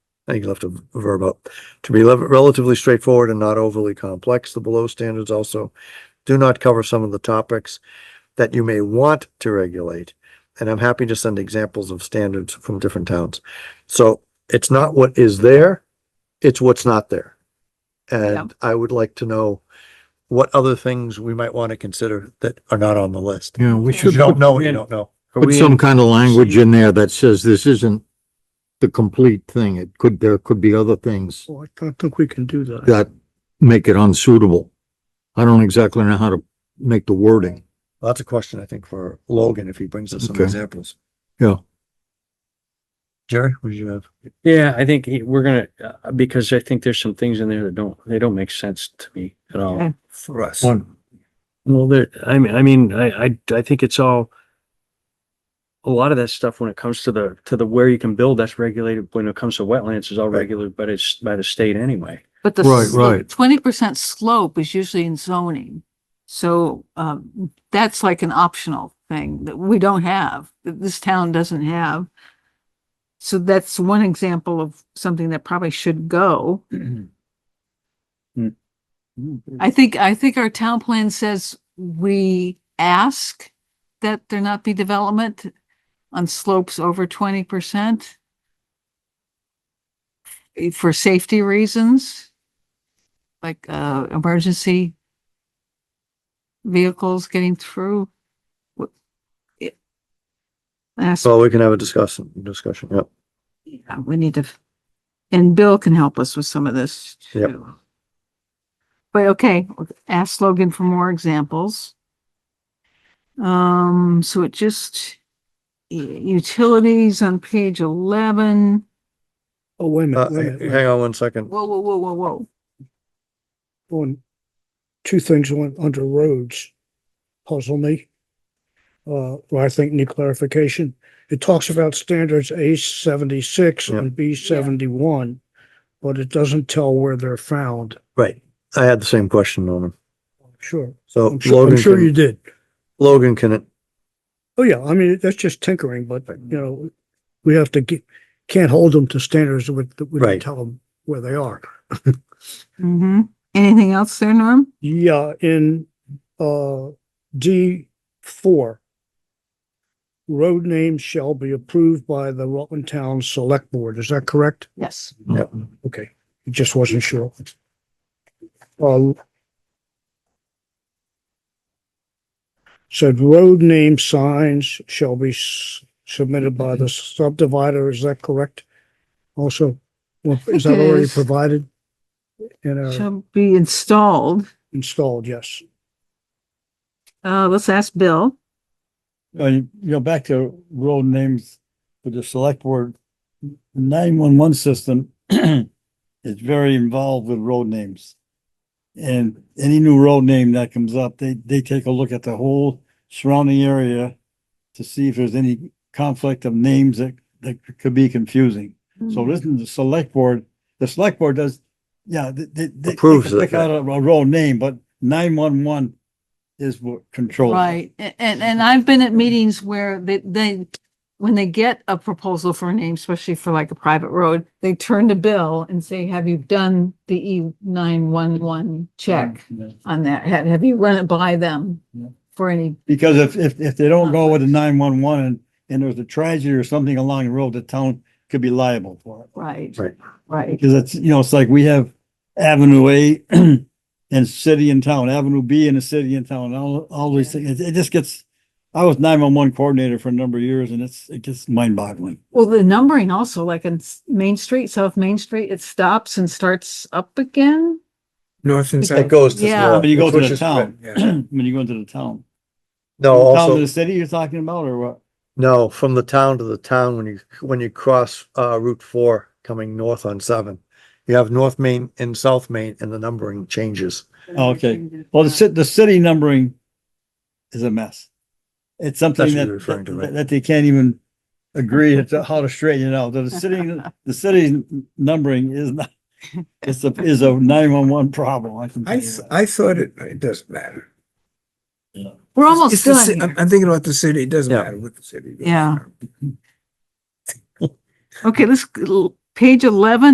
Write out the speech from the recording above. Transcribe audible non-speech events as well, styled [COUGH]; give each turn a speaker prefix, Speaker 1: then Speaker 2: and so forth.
Speaker 1: I think you left a v- verb out, to be lev- relatively straightforward and not overly complex. The below standards also do not cover some of the topics that you may want to regulate. And I'm happy to send examples of standards from different towns. So it's not what is there, it's what's not there. And I would like to know what other things we might want to consider that are not on the list.
Speaker 2: Yeah, we
Speaker 1: Because
Speaker 2: should
Speaker 1: you don't
Speaker 2: put
Speaker 1: know, what you don't know.
Speaker 3: Are
Speaker 2: put
Speaker 3: we
Speaker 2: some
Speaker 3: in-
Speaker 2: kind of language in there that says this isn't the complete thing. It could, there could be other things
Speaker 3: Oh, I don't think we can do that.
Speaker 2: that make it unsuitable. I don't exactly know how to make the wording.
Speaker 1: Well, That's a question, I think, for Logan, if he brings us some
Speaker 2: Okay.
Speaker 1: examples.
Speaker 2: Yeah.
Speaker 1: Jerry, what do you have?
Speaker 3: Yeah, I think it- we're gonna, uh, because I think there's some things in there that don't, they don't make sense to me at all.
Speaker 4: Okay.
Speaker 1: For us.
Speaker 2: One,
Speaker 3: Well, there, I mean, I mean, I, I, I think it's all a lot of that stuff when it comes to the, to the where you can build, that's regulated. When it comes to wetlands, is all
Speaker 1: Right.
Speaker 3: regulated, but it's by the state anyway.
Speaker 4: But
Speaker 2: Right,
Speaker 4: the
Speaker 2: right.
Speaker 4: twenty percent slope is usually in zoning. So um, that's like an optional thing that we don't have, that this town doesn't have. So that's one example of something that probably should go.
Speaker 3: Mm.
Speaker 4: I think, I think our town plan says we ask that there not be development on slopes over twenty percent for safety reasons like uh emergency vehicles getting through. Wh- it- That's,
Speaker 1: So we can have a discussion, discussion, yep.
Speaker 4: yeah, we need to, and Bill can help us with some of this
Speaker 1: Yep.
Speaker 4: too. But okay, ask Logan for more examples. Um, so it just, u- utilities on page eleven.
Speaker 5: Oh, wait a
Speaker 1: Uh,
Speaker 5: minute, wait a minute, wait a
Speaker 1: hang on one second.
Speaker 4: Whoa, whoa, whoa, whoa, whoa.
Speaker 5: minute. On- two things on, under roads puzzle me. Uh, well, I think need clarification. It talks about standards A seventy-six
Speaker 1: Yeah.
Speaker 5: and B seventy-one, but it doesn't tell where they're found.
Speaker 1: Right, I had the same question, Norman.
Speaker 5: Sure,
Speaker 1: So
Speaker 5: I'm sure, I'm
Speaker 1: Logan
Speaker 5: sure you
Speaker 1: can,
Speaker 5: did.
Speaker 1: Logan can,
Speaker 5: Oh, yeah, I mean, that's just tinkering, but, you know, we have to get, can't hold them to standards with, we don't
Speaker 1: Right.
Speaker 5: tell them where they are.
Speaker 4: Mm-hmm. Anything else there, Norm?
Speaker 5: Yeah, in uh D four. Road names shall be approved by the Rutland Town Select Board. Is that correct?
Speaker 4: Yes.
Speaker 5: Okay, just wasn't sure. Um. Said road name signs shall be s- submitted by the subdivider. Is that correct? Also, well, is that
Speaker 4: It
Speaker 5: already
Speaker 4: is.
Speaker 5: provided? In our
Speaker 4: Shall be installed.
Speaker 5: installed, yes.
Speaker 4: Uh, let's ask Bill.
Speaker 6: Uh, you you know, back to road names for the select board, nine-one-one system [CLEARS THROAT] is very involved with road names. And any new road name that comes up, they, they take a look at the whole surrounding area to see if there's any conflict of names that, that could be confusing. So this is the select board, the select board does, yeah, they, they- they. they
Speaker 1: Approves
Speaker 6: can
Speaker 1: it,
Speaker 6: Pick out a, a road name, but nine-one-one is what controls. it.
Speaker 4: Right, A- and, and I've been at meetings where they, they, when they get a proposal for a name, especially for like a private road, they turn to Bill and say, have you done the E nine one one
Speaker 1: Mm.
Speaker 4: check
Speaker 6: Yeah.
Speaker 4: on that? Have, have you run it by them
Speaker 6: Yeah.
Speaker 4: for any,
Speaker 6: Because if, if, if they don't go with the
Speaker 4: Conflict.
Speaker 6: nine-one-one and, and there's a tragedy or something along the road, the town could be liable for it.
Speaker 4: right,
Speaker 1: Right.
Speaker 4: right,
Speaker 6: Because it's, you know, it's like we have Avenue A [CLEARS THROAT] and city and town, Avenue B and a city and town, all, all these things. It, it just gets, I was nine-one-one coordinator for a number of years and it's, it gets mind-boggling.
Speaker 4: well, the numbering also, like in S- Main Street, South Main Street, it stops and starts up again?
Speaker 7: North and
Speaker 1: it
Speaker 7: south.
Speaker 1: goes to.
Speaker 4: Yeah.
Speaker 1: Laura,
Speaker 6: When you go to
Speaker 1: which
Speaker 6: the
Speaker 1: is-
Speaker 6: town,
Speaker 7: yeah.
Speaker 6: [CLEARS THROAT] when you go into the town.
Speaker 1: No,
Speaker 6: From
Speaker 1: Oh,
Speaker 6: the Town to
Speaker 1: also,
Speaker 6: the city you're talking about or what?
Speaker 1: no, from the town to the town, when you, when you cross, uh, Route four coming north on seven. You have North Main and South Main and the numbering changes.
Speaker 6: Okay. Well, the city, the city numbering is a mess. It's something
Speaker 1: That's what
Speaker 6: that,
Speaker 1: you're referring to, right?
Speaker 6: that, that they can't even agree as to how to straighten it out. The city, the city numbering is not, it's a, is a nine-one-one problem. I can
Speaker 7: I,
Speaker 6: tell you
Speaker 7: th-
Speaker 6: that.
Speaker 7: I thought it, it doesn't matter.
Speaker 4: We're almost
Speaker 7: It's the ci-
Speaker 4: done
Speaker 7: I'm
Speaker 4: here.
Speaker 7: I'm thinking about the city, it doesn't
Speaker 1: Yeah.
Speaker 7: matter what [LAUGHS] the city. does.
Speaker 4: Yeah. Okay, let's, page eleven